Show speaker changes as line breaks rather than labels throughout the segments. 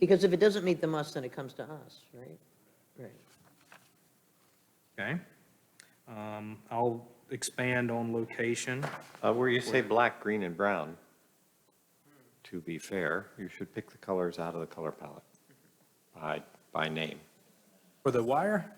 Because if it doesn't meet the must, then it comes to us, right? Right.
Okay. Um, I'll expand on location.
Uh, Where you say black, green, and brown, to be fair, you should pick the colors out of the color palette by, by name.
For the wire?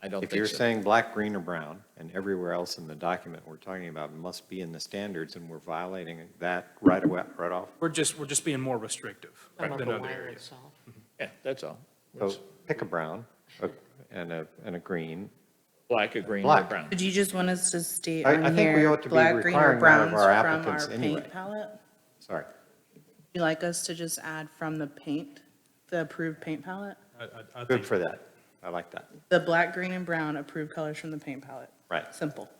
I don't
If you're
think so.
saying black, green, or brown, and everywhere else in the document we're talking about must be in the standards, and we're violating that right away, right off,
We're just, we're just being more restrictive
Talking about
than
the
other
wire
areas.
itself.
Yeah, that's all.
so pick a brown, a- and a, and a green.
Black, a green, or
Black.
brown.
Did you just want us to state
I- I
on
think we
here,
ought to be
black, green, or
requiring that of
browns
our
from
applicants
our
anyway.
paint palette?
Sorry,
You like us to just add from the paint, the approved paint palette?
I- I- I
good
think-
for that. I like that.
The black, green, and brown approved colors from the paint palette?
Right.
Simple,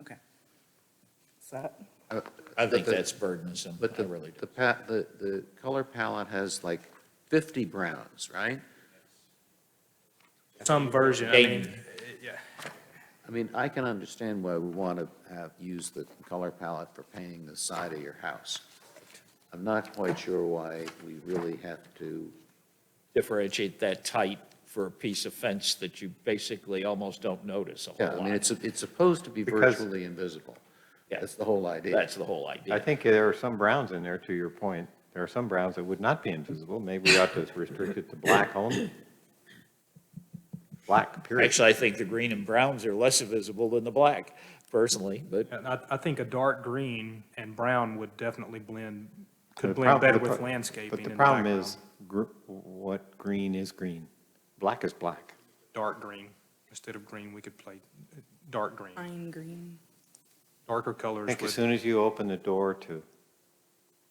okay. Is that?
I think
But the-
that's burdensome.
But
I
the,
really do.
the pa, the, the color palette has like 50 browns, right?
Some version, I mean, yeah.
I mean, I can understand why we want to have, use the color palette for painting the side of your house. I'm not quite sure why we really have to,
Differentiate that tight for a piece of fence that you basically almost don't notice a
yeah,
whole
I mean,
lot.
it's, it's supposed to be
Because-
virtually invisible.
Yeah.
That's the whole idea.
That's the whole
I
idea.
think there are some browns in there, to your point. There are some browns that would not be invisible. Maybe we ought to restrict it to black only. Black, period.
Actually, I think the green and browns are less visible than the black personally, but
And I, I think a dark green and brown would definitely blend, could
The
blend
prob-
better
the
with
pro-
landscaping
But
in
the
the
problem
background.
is, gr- what green is green? Black is black.
Dark green, instead of green, we could play uh, dark green,
Fine green.
darker
I
colors
think as
with,
soon as you open the door to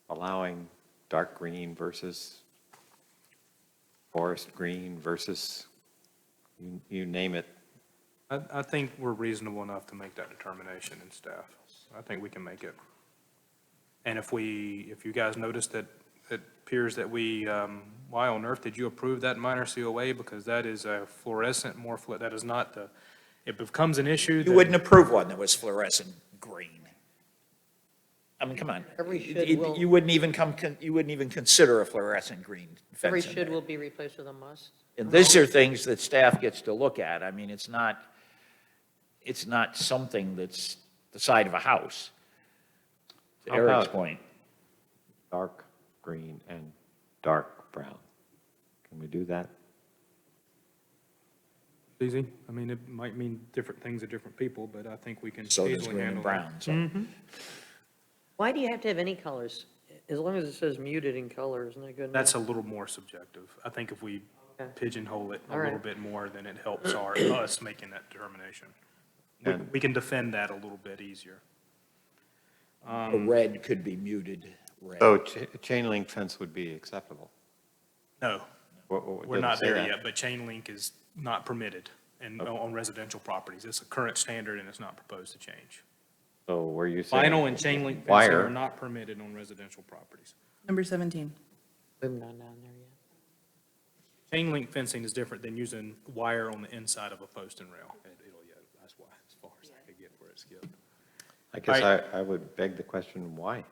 allowing dark green versus forest green versus, you- you name it,
I, I think we're reasonable enough to make that determination in staff. I think we can make it. And if we, if you guys notice that, it appears that we, um, why on earth did you approve that minor COA? Because that is a fluorescent, more, flu- that is not the, it becomes an issue.
you
then-
wouldn't approve one that was fluorescent green. I mean, come on.
Every
You-
should
you-
will-
You wouldn't even come, con- you wouldn't even consider a fluorescent green fence
Every
in
should
there.
will be replaced with a must.
And these are things that staff gets to look at. I mean, it's not, it's not something that's the side of a house. To
How
Eric's
about-
point,
dark green and dark brown. Can we do that?
Easy. I mean, it might mean different things to different people, but I think we can
so
easily
does
handle
green and
that.
brown,
Hmm?
so.
Why do you have to have any colors? As long as it says muted in color, isn't that good enough?
That's a little more subjective. I think if we
Okay.
pigeonhole it a
All right.
little bit more, then it helps our, us making that determination. We-
And-
We can defend that a little bit easier.
A
Um,
red could be muted red.
So cha- chain link fence would be acceptable.
No,
What- what-
we're
doesn't
not
say
there
that.
yet, but chain link is not permitted and on residential properties. It's a current standard and it's not proposed to change.
So where you say.
Vinyl and chain link fencing are
Wire,
not permitted on residential properties.
Number 17.
We've not down there yet.
Chain link fencing is different than using wire on the inside of a post and rail. It- it'll- yeah, That's why, as far as I could get where it skipped.
I guess I, I would beg the question, why?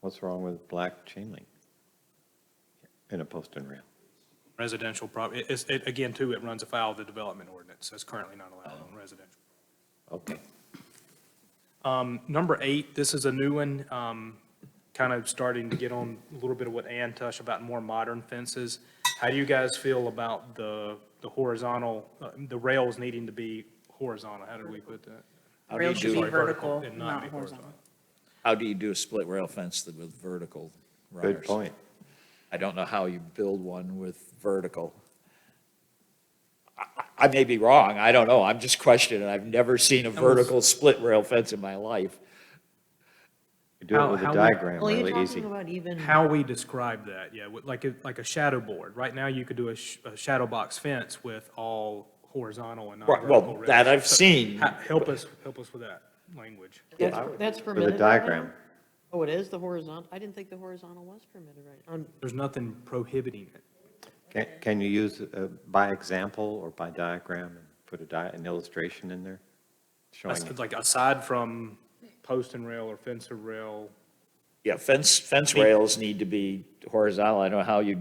What's wrong with black chain link? In a post and rail?
residential property, it, it's- it, again, too, it runs afoul of the development ordinance, that's currently not allowed on residential.
Okay.
Um, number eight, this is a new one, um, kind of starting to get on a little bit of what Ann touched about more modern fences. How do you guys feel about the, the horizontal, uh, the rails needing to be horizontal, how did we put that?
How do you
Rail should be
do,
vertical,
and
not
be
horizontal.
how do you do a split rail fence that with vertical runners?
Good point.
I don't know how you build one with vertical. I- I I may be wrong, I don't know, I'm just questioning, I've never seen a vertical split rail fence in my life.
You do
How-
it with
how
a
we-
diagram,
Well, you're
really easy.
talking about even,
How we describe that, yeah, with- like, a- like a shadow board, right now you could do a, sh- a shadow box fence with all horizontal and not
Right,
vertical.
well,
rails.
that I've
So,
seen.
ha- Help us, help us with that language.
that's, that's
With
permitted.
a
right now?
diagram,
Oh, it is the horizontal? I didn't think the horizontal was permitted right now. Um,
There's nothing prohibiting it.
can, can you use, uh, by example or by diagram, and put a di, an illustration in there? Showing,
That's Like, aside from post and rail or fence or rail,
Yeah, fence, fence rails need to be horizontal, I don't know how you